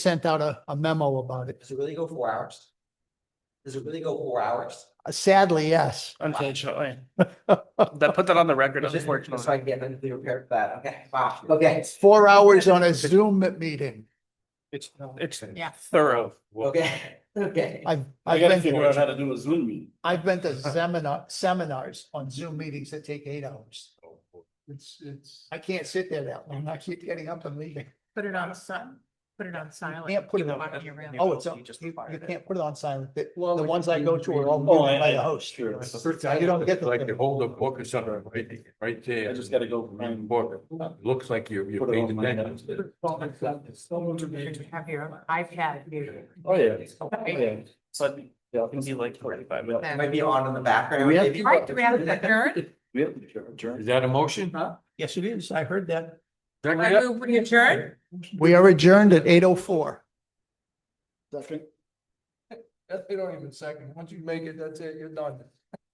sent out a, a memo about it. Does it really go four hours? Does it really go four hours? Uh, Sadly, yes. Unfortunately, that put that on the record, Just- unfortunately. Just so I can get mentally prepared for that, okay, wow, okay, Four hours on a Zoom meeting. It's, it's Yeah. thorough. okay, okay. I've, I I've gotta been, figure out to- how to do a Zoom meeting. I've been to seminar, seminars on Zoom meetings that take eight hours. It's, it's, I can't sit there that long. I keep getting up and leaving. Put it on sun, put it on silent. Uh, can't put it You on- want your room. Oh, it's, You on- just you, acquired you it. can't put it on silent. The, the ones I go to are all Oh, I- muted by I- the host. sure. You don't get Like you the, hold a book or something, right, right there. I just gotta go Read the find- book, looks like you, you Put it paid on my attention. You Have your iPad muted. Oh, yeah. Oh, Okay. yeah. So, yeah, it can be like forty-five minutes. It Might be on in the background. We have- maybe. All right, do we have to adjourn? We have to adjourn. Is that a motion? yes, it is. I heard that. Second I it? move we adjourn? We are adjourned at eight oh four. Second. That, they don't even second. Once you make it, that's it, you're done.